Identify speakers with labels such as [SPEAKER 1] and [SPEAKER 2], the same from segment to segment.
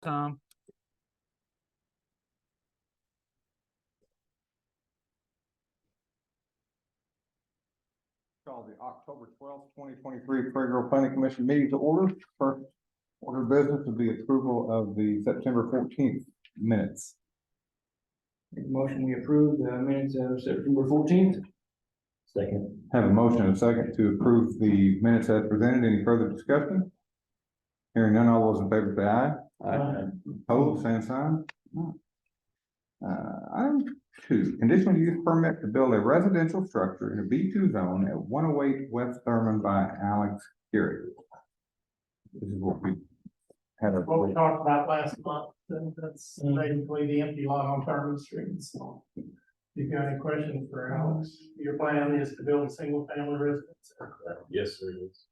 [SPEAKER 1] Tom?
[SPEAKER 2] Call the October twelfth, twenty twenty-three Prairie Grove Planning Commission meeting to order. First order of business would be approval of the September fourteenth minutes.
[SPEAKER 3] Make a motion, we approve the minutes of September fourteenth.
[SPEAKER 4] Second.
[SPEAKER 2] Have a motion and a second to approve the minutes as presented. Any further discussion? Hearing none, all those in favor say aye. Opposed, same sign. Uh, item two, conditional use permit to build a residential structure in a B two zone at one oh eight West Thurman by Alex Gary. This is what we had. a-
[SPEAKER 5] what we talked about last month, and that's basically the empty lot on Thurman Street, so. If you got any questions for Alex, your plan is to build a single family residence.
[SPEAKER 4] Yes, there is.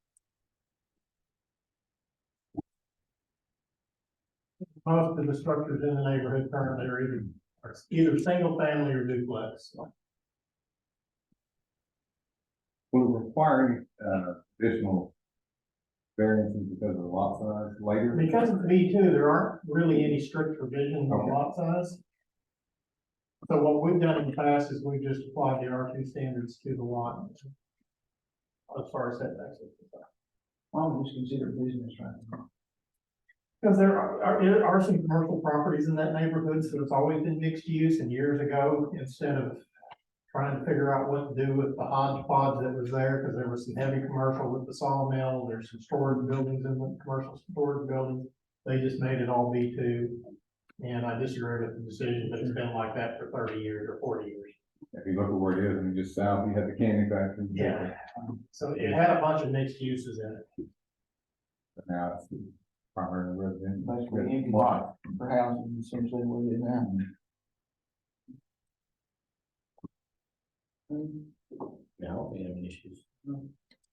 [SPEAKER 5] Most of the structures in the neighborhood currently are either, are either single family or duplex.
[SPEAKER 2] We're requiring, uh, additional variances because of the lot size later.
[SPEAKER 5] Because of the B two, there aren't really any strict provisions on lot size. So what we've done in the past is we've just applied the R two standards to the lot. As far as setbacks. are concerned.
[SPEAKER 3] I'll just consider business right now.
[SPEAKER 5] Because there are, are- there are some commercial properties in that neighborhood, so it's always been mixed use, and years ago, instead of trying to figure out what to do with the hodgepodge that was there, because there was some heavy commercial with the sawmill, there's some storage buildings in the commercial storage buildings. They just made it all B two, and I disagree with the decision, but it's been like that for thirty years or forty years.
[SPEAKER 2] If you look at where it is and just south, you have the candy factory.
[SPEAKER 5] Yeah. So it had a bunch of mixed uses in it.
[SPEAKER 2] But Now it's primary residential.
[SPEAKER 3] Basically, empty lot for housing, essentially what it is now.
[SPEAKER 4] Now, I don't have any issues.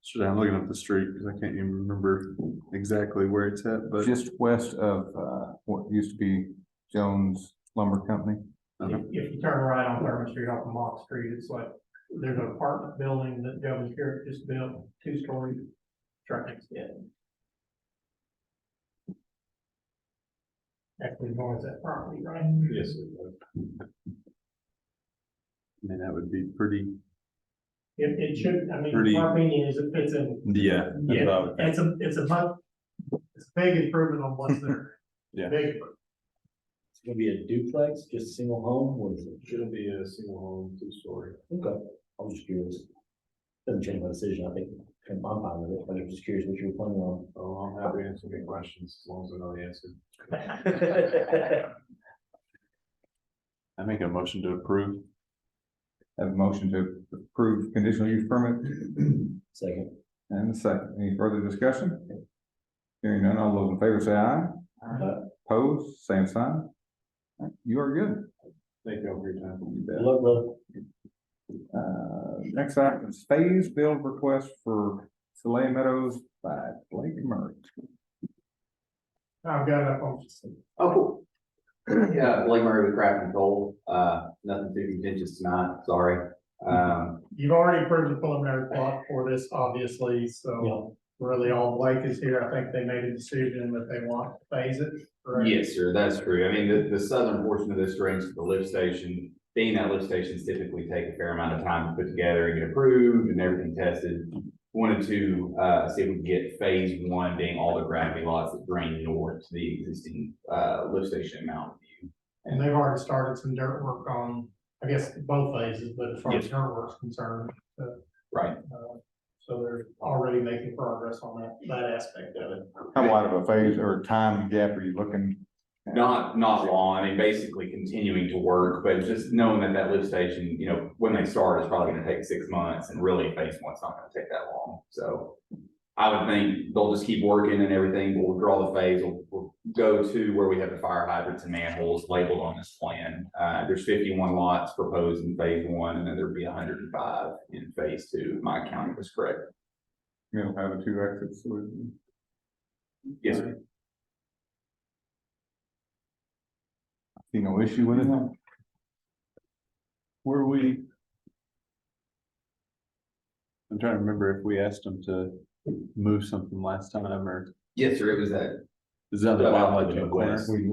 [SPEAKER 6] Should I'm looking up the street because I can't even remember exactly where it's at, but
[SPEAKER 2] Just west of, uh, what used to be Jones Lumber Company.
[SPEAKER 6] Uh-huh.
[SPEAKER 5] If, if you turn right on Thurman Street off of Mock Street, it's like, there's an apartment building that Governor Garrett just built, two-story, right next to it. Actually, towards that property, right?
[SPEAKER 4] Yes, there is.
[SPEAKER 6] I mean, that would be pretty.
[SPEAKER 5] It, it should, I mean,
[SPEAKER 6] Pretty-
[SPEAKER 5] my opinion is it fits in,
[SPEAKER 6] Yeah.
[SPEAKER 5] yeah, it's a, it's a much, it's a big improvement on what's there.
[SPEAKER 6] Yeah.
[SPEAKER 5] Big,
[SPEAKER 4] It's gonna be a duplex, just a single home, what is it? Should be a single home, two story. Okay, I'm just curious. Doesn't change my decision, I think, I'm fine with it, but I'm just curious what you were planning on. Oh, I'm happy to answer any questions, as long as I know the answer.
[SPEAKER 6] I make a motion to approve.
[SPEAKER 2] Have a motion to approve conditional use permit
[SPEAKER 4] Second.
[SPEAKER 2] and a second. Any further discussion? Hearing none, all those in favor say aye. Opposed, same sign. You are good.
[SPEAKER 4] Thank you all for your time.
[SPEAKER 2] You bet.
[SPEAKER 4] Love, love.
[SPEAKER 2] Uh, next item is phase build request for Soleil Meadows by Blake Murray.
[SPEAKER 5] I've got it up on,
[SPEAKER 7] Oh, cool. Yeah, Blake Murray with Craft and Gold, uh, nothing too contentious tonight, sorry. Um,
[SPEAKER 5] you've already approved the preliminary plot for this, obviously, so.
[SPEAKER 4] Yeah.
[SPEAKER 5] really all Blake is here, I think they made a decision that they want to phase it. correct?
[SPEAKER 7] yes, sir, that's true. I mean, the, the southern portion of this range to the lift station, being that lift stations typically take a fair amount of time to put together and get approved and everything tested. Wanted to, uh, see if we could get phase one being all the gravity lots that drain north to the existing, uh, lift station in Mountain View.
[SPEAKER 5] And they've already started some dirt work on, I guess, both phases, but as far as dirt work's concerned,
[SPEAKER 7] Right,
[SPEAKER 5] uh, so they're already making progress on that, that aspect of it.
[SPEAKER 2] How wide of a phase or time gap are you looking?
[SPEAKER 7] Not, not long, I mean, basically continuing to work, but just knowing that that lift station, you know, when they start is probably gonna take six months and really phase one's not gonna take that long, so. I would think they'll just keep working and everything, we'll draw the phase, we'll, we'll go to where we have the fire hydrants and manholes labeled on this plan. Uh, there's fifty-one lots proposed in phase one, and then there'd be hundred and five in phase two, if my counting was correct.
[SPEAKER 2] You know, have the two exits. so it-
[SPEAKER 7] Yes, sir.
[SPEAKER 2] See no issue with it?
[SPEAKER 6] Were we? I'm trying to remember if we asked them to move something last time or
[SPEAKER 7] yes, sir, it was that
[SPEAKER 6] is that the
[SPEAKER 7] Uh,
[SPEAKER 6] wildlife in the
[SPEAKER 7] West.
[SPEAKER 6] corner?
[SPEAKER 2] We